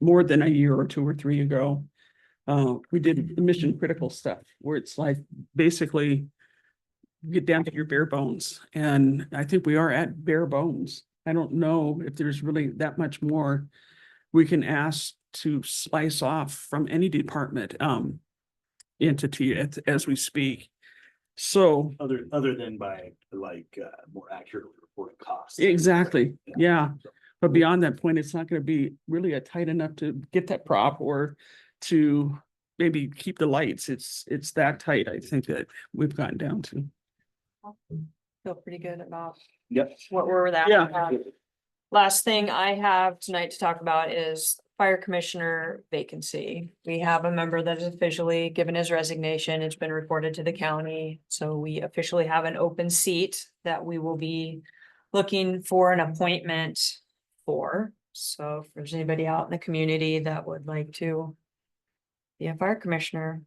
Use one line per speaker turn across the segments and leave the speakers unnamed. more than a year or two or three ago. Uh, we did mission critical stuff where it's like basically get down to your bare bones. And I think we are at bare bones. I don't know if there's really that much more we can ask to slice off from any department, um, entity as, as we speak. So
Other, other than by like, uh, more accurately reporting costs.
Exactly, yeah. But beyond that point, it's not gonna be really a tight enough to get that prop or to maybe keep the lights. It's, it's that tight, I think that we've gotten down to.
feel pretty good about
Yep.
what we're without.
Yeah.
Um, Last thing I have tonight to talk about is fire commissioner vacancy. We have a member that has officially given his resignation. It's been reported to the county. So we officially have an open seat that we will be looking for an appointment for. So if there's anybody out in the community that would like to be a fire commissioner,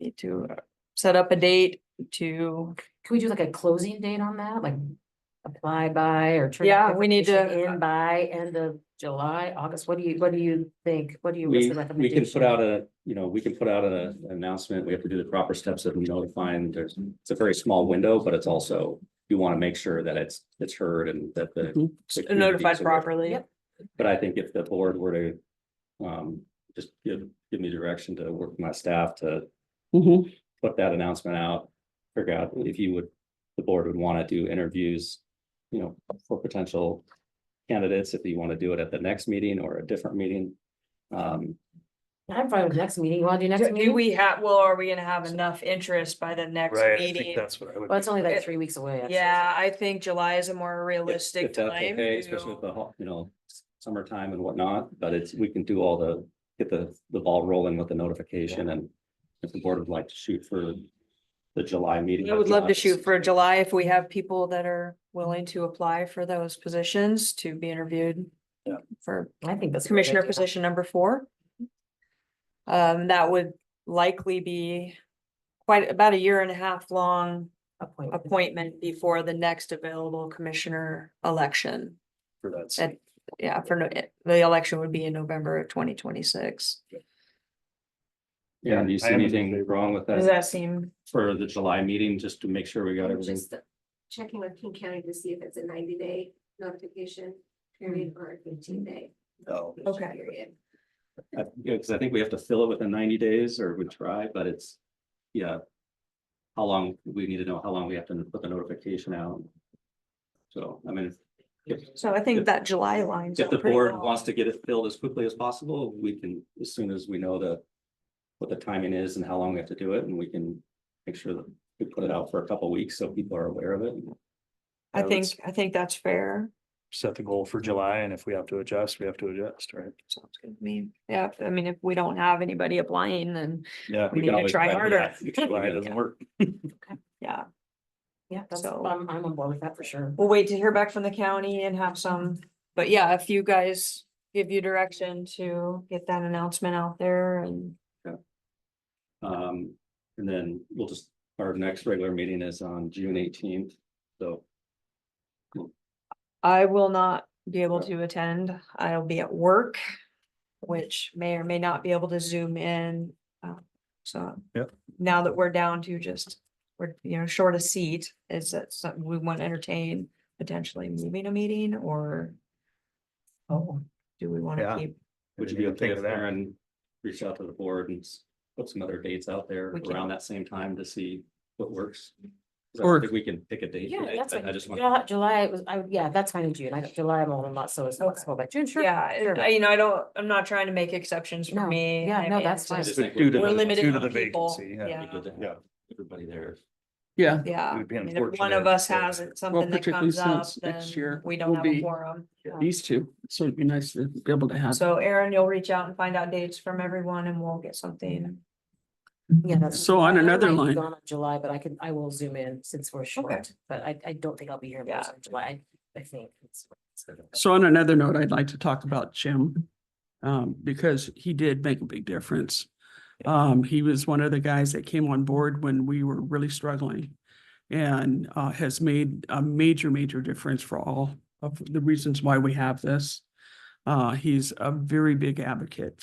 need to uh, set up a date to
Can we do like a closing date on that, like apply by or? turn
Yeah, we need
application
to- uh,
In by end of July, August, what do you, what do you think, what do you? what's
We,
the
we can put
recommendation?
out a, you know, we can put out a- an announcement. We have to do the proper steps of notifying. There's, it's a very small window, but it's also, you want to make sure that it's, it's heard and that the.
Mhm.
the community
notified
is aware.
properly.
Yep.
But I think if the board were to, um, just give, give me direction to work with my staff to
Mhm.
put that announcement out. Figure out if you would, the board would want to do interviews, you know, for potential candidates, if you want to do it at the next meeting or a different meeting. Um,
I'm fine with next meeting, you wanna do next
Do
meeting? Well,
we have, well, are we gonna have enough interest by the next
Right, I think
meeting?
that's what I would.
it's only like three weeks away. actually.
Yeah, I think July is a more
if-
realistic
if that's
time.
okay, Especially with
to-
the, hot, you know, summertime and whatnot, but it's, we can do all the, get the, the ball rolling with the notification and if the board would like to shoot for the July meeting.
I would love to
Obviously.
shoot for July if we have people that are willing to apply for those positions to be interviewed.
Yeah.
For
I think that's. a great
commissioner
idea.
position number four. Um, that would likely be quite about a year and a half long
Appointment.
appointment before the next available commissioner election.
For that.
That- Yeah, for no- it- the election would be in November of twenty twenty-six.
Yeah, do you
I
see
am in
anything
favor.
wrong with
Does
that
that seem?
for the July meeting, just to make sure we got
I'm
everything?
Just Checking with King County to see if it's a ninety day notification period or a fifteen day.
Oh.
Okay.
Period.
I- Yeah, because I think we have to fill it within ninety days or we try, but it's, yeah. How long, we need to know how long we have to put the notification out. So, I mean, if,
So I think
If-
that July lines.
if
up
the
pretty
board
well.
wants to get it filled as quickly as possible, we can, as soon as we know the. What the timing is and how long we have to do it, and we can make sure that we put it out for a couple of weeks so people are aware of it.
I
I would
think,
s-
I think that's fair.
Set the goal for July and if we have to adjust, we have to adjust, right?
Sounds good to me. Yeah, if- I mean, if we don't have anybody applying, then
Yeah.
We
can
need to
always
try
do
harder.
that. If July doesn't work.
yeah,
Yeah, that's,
So-
I'm, I'm on board with that for sure.
we'll wait to hear back from the county and have some. But yeah, if you guys give you direction to get that announcement out there and
Um, and then we'll just, our next regular meeting is on June eighteenth, so.
I will not be able to attend. I'll be at work, which may or may not be able to zoom in. uh, So.
Yep.
Now that we're down to just, we're, you know, short a seat, is that something we want to entertain potentially moving a meeting or? Oh, do we want
Yeah.
to keep,
Would you be okay if Aaron reached out to the board and s- put some other dates out there
We can.
around that same time to see what works? 'Cause I
Or-
don't think we can pick a date.
Yeah,
today,
that's
but I
fine.
just want,
July, July was, I, yeah, that's fine in June, I got July, I'm on a lot, so it's flexible, but June, sure.
yeah, and
sure.
I- you know, I don't, I'm not trying to make exceptions for
No,
me.
yeah,
I
no,
mean,
that's
it's
fine.
just-
Just think we're-
Due to
We're
the-
limited
due to
on
the
people.
vacancy, yeah.
Yeah,
good to have
Yeah.
everybody there.
Yeah,
yeah.
It would be
I mean, if One of
unfortunate if,
us
uh,
has it- something that
particularly
comes up,
since
then
next year
we don't
will
have a
be-
quorum. Yeah.
these two. So it'd be nice to be able to have.
So Aaron, you'll reach out and find out dates from everyone and we'll get something.
Yeah, that's.
So on
I
another
might
line-
be gone on July, but I can, I will zoom in since we're short, but I, I don't think I'll be here
Yeah.
most of July, I think. it's- it's-
So on another note, I'd like to talk about Jim, um, because he did make a big difference. Um, he was one of the guys that came on board when we were really struggling and, uh, has made a major, major difference for all of the reasons why we have this. Uh, he's a very big advocate